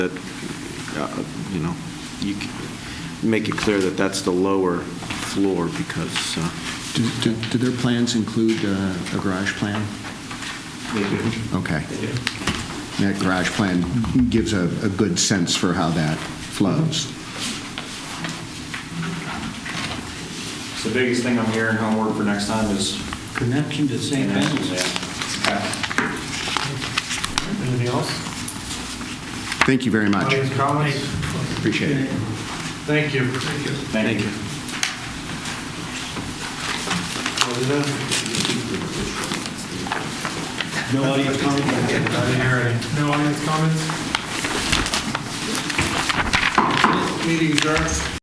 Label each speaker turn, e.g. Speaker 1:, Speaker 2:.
Speaker 1: that, uh, you know, you c- make it clear that that's the lower floor because, uh,
Speaker 2: Do, do do their plans include uh, a garage plan? Okay. That garage plan gives a, a good sense for how that flows.
Speaker 3: So The biggest thing I'm hearing homework for next time is.
Speaker 4: Connection to St. Ben's.
Speaker 3: Yeah.
Speaker 5: Anything else?
Speaker 2: Thank you very much.
Speaker 5: Audience comments?
Speaker 2: Appreciate it.
Speaker 5: Thank you. Thank you.
Speaker 3: Thank you.
Speaker 4: No audience comment?
Speaker 5: I didn't hear any. No audience comments? Meeting adjourned.